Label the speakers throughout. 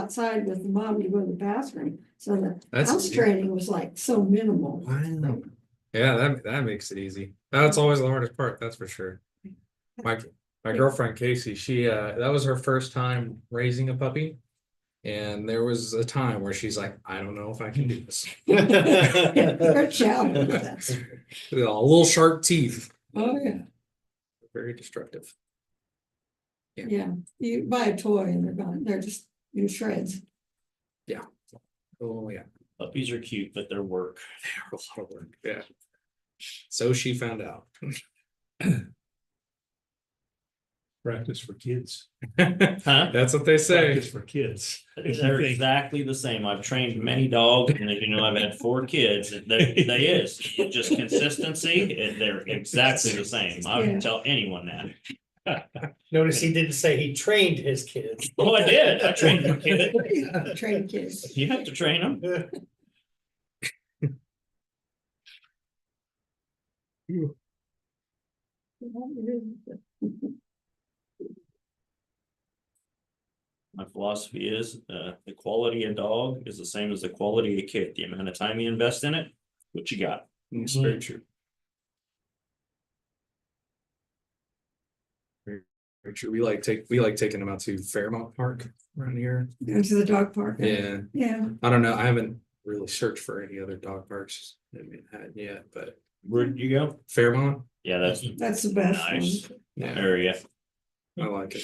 Speaker 1: outside with the mom to go to the bathroom. So the house
Speaker 2: That's,
Speaker 1: training was like so minimal.
Speaker 2: wow. Yeah, that, that makes it easy. That's always the hardest part, that's for sure. My, my girlfriend Casey, she, uh, that was her first time raising a puppy. And there was a time where she's like, I don't know if I can do this.
Speaker 1: They're challenged with that.
Speaker 2: You know, Little sharp teeth,
Speaker 1: Oh, yeah,
Speaker 2: very destructive.
Speaker 1: yeah. You buy a toy and they're gone. They're just in shreds.
Speaker 2: Oh, yeah,
Speaker 3: Puppies are cute, but they're work.
Speaker 2: they're a lot of work, yeah. So she found out.
Speaker 4: Practice for kids.
Speaker 3: Huh?
Speaker 2: That's what they say.
Speaker 4: Practice for kids.
Speaker 3: They're exactly the same. I've trained many dogs and as you know, I've had four kids. They, they is just consistency. and They're exactly the same. I
Speaker 1: Yeah.
Speaker 3: would tell anyone that.
Speaker 5: Notice he didn't say he trained his kids.
Speaker 3: Oh, I did. I trained my kid.
Speaker 1: Train kids.
Speaker 3: You have to train them. My philosophy is, uh, the quality of dog is the same as the quality of kid. The amount of time you invest in it, what you got.
Speaker 2: It's very true. Very very true. We like take, we like taking them out to Fairmont Park around here.
Speaker 1: Go to the dog park.
Speaker 2: Yeah,
Speaker 1: Yeah.
Speaker 2: I don't know. I haven't really searched for any other dog parks in Manhattan yet, but
Speaker 3: Where'd you go?
Speaker 2: Fairmont,
Speaker 3: Yeah, that's
Speaker 1: That's the best one.
Speaker 3: nice
Speaker 2: yeah,
Speaker 3: area.
Speaker 2: I like it.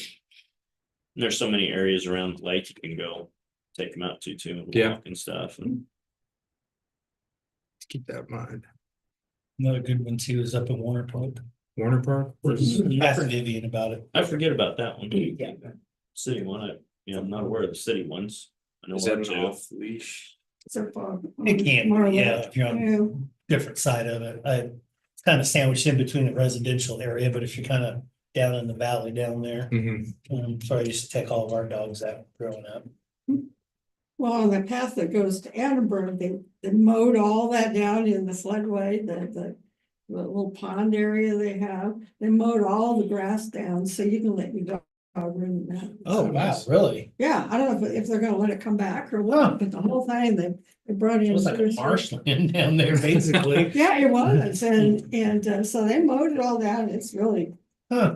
Speaker 3: There's so many areas around the lake you can go take them out to too. and
Speaker 2: Yeah.
Speaker 3: walk And stuff and.
Speaker 2: Keep that in mind.
Speaker 5: Another good one too is up in Warner Park.
Speaker 2: Warner Park, where's,
Speaker 5: Ask Vivian about it.
Speaker 3: I forget about that one.
Speaker 5: Yeah.
Speaker 3: City one, I, you know, I'm not aware of the city ones. I know
Speaker 2: is
Speaker 3: one
Speaker 2: that
Speaker 3: or
Speaker 2: an
Speaker 3: two.
Speaker 2: off leash?
Speaker 1: So far.
Speaker 5: It can,
Speaker 1: More or
Speaker 5: be, Mm-hmm. yeah, Mm.
Speaker 1: less.
Speaker 5: if you're on
Speaker 1: Yeah.
Speaker 5: different side of it. I it's kind of sandwiched in between the residential area, but if you're kind of down in the valley down there,
Speaker 2: Mhm.
Speaker 5: um, so I used to take all of our dogs out growing up.
Speaker 1: Well, on the path that goes to Annenberg, they, they mowed all that down in the floodway, the, the. The little pond area they have, they mowed all the grass down, so you can let your dog run that.
Speaker 5: Oh, wow, really?
Speaker 1: Yeah, I don't know if, if they're gonna let it come back or what, but the whole thing, they, they brought in.
Speaker 5: It was like a marshland down there, basically.
Speaker 1: Yeah, it was, and, and uh, so they mowed it all down, it's really
Speaker 5: Huh,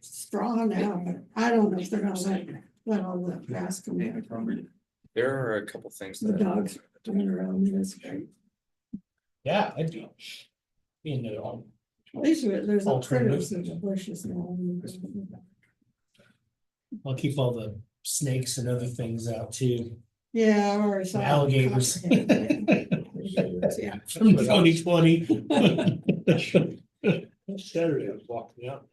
Speaker 1: straw now, but I don't know if they're gonna let, let all the grass come back.
Speaker 2: There are a couple things
Speaker 1: The
Speaker 2: that.
Speaker 1: dogs turn around, that's great.
Speaker 5: yeah, I do. You know,
Speaker 1: These are, there's no critters
Speaker 5: Alternatives.
Speaker 1: in the bushes now.
Speaker 5: I'll keep all the snakes and other things out too.
Speaker 1: Yeah, or. it's
Speaker 5: And alligators.
Speaker 1: Yeah,
Speaker 5: From twenty twenty.
Speaker 4: Saturday, I was walking out.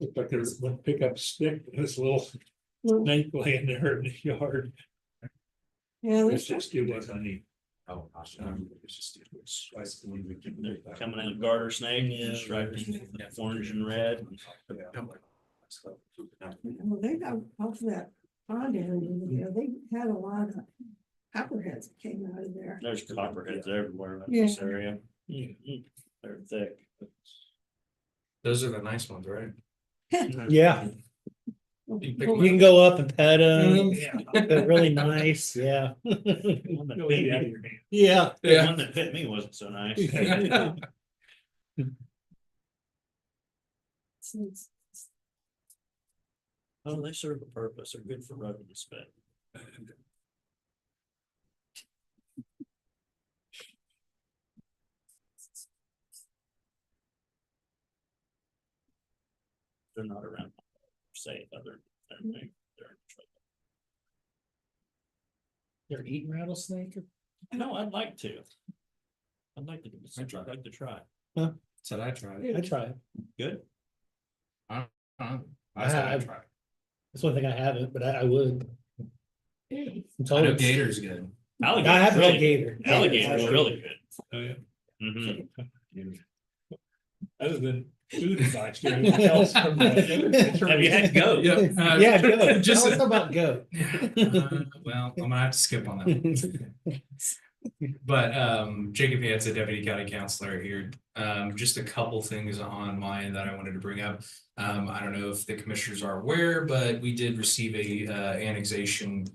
Speaker 4: Looked like there's one pickup stick, and this little
Speaker 1: well,
Speaker 4: snake laying there in the yard.
Speaker 1: yeah,
Speaker 4: It's
Speaker 1: there's-
Speaker 4: just, it was, I need. Oh,
Speaker 3: They're coming out garter snake,
Speaker 5: Yeah.
Speaker 3: striped, orange and red.
Speaker 2: Um,
Speaker 1: well, they got off that pond area, you know, they had a lot of copperheads that came out of there.
Speaker 3: There's copperheads everywhere in
Speaker 1: Yeah.
Speaker 3: this area. Mm-hmm. They're thick.
Speaker 2: Those are the nice ones, right?
Speaker 5: Yeah, you can go up and pet
Speaker 2: Mm-hmm.
Speaker 5: them. They're really nice, yeah.
Speaker 3: One that bit me-
Speaker 5: Yeah.
Speaker 3: the
Speaker 2: Yeah.
Speaker 3: one that bit me wasn't so nice.
Speaker 1: Since-
Speaker 3: Oh, they serve a purpose. They're good for rubbing the spit. They're not around, say, other, they're, big, they're in trouble.
Speaker 5: They're eating rattlesnake?
Speaker 3: No, I'd like to. I'd like to, give this- I'd like to try.
Speaker 2: Said I tried. it.
Speaker 5: I try.
Speaker 3: Good.
Speaker 2: Huh? I said I
Speaker 5: I've-
Speaker 2: tried.
Speaker 5: That's one thing I haven't, but I, I would. I'm
Speaker 2: I
Speaker 5: told
Speaker 2: know
Speaker 5: it's-
Speaker 2: Gator's good.
Speaker 5: I
Speaker 3: Alligator's
Speaker 5: have real
Speaker 3: really,
Speaker 5: gator.
Speaker 3: alligator's really good.
Speaker 4: Oh, yeah.
Speaker 3: Mhm.
Speaker 4: Other than food advice. there anything else from the-
Speaker 3: Have you had goat?
Speaker 2: uh,
Speaker 5: Yeah, goat.
Speaker 2: Just.
Speaker 5: Tell us about goat.
Speaker 2: Uh, Well, I'm gonna have to skip on that. one. But um, Jacob Vance, a deputy county counselor here, um, just a couple things on my end that I wanted to bring up. Um, I don't know if the commissioners are aware, but we did receive a uh annexation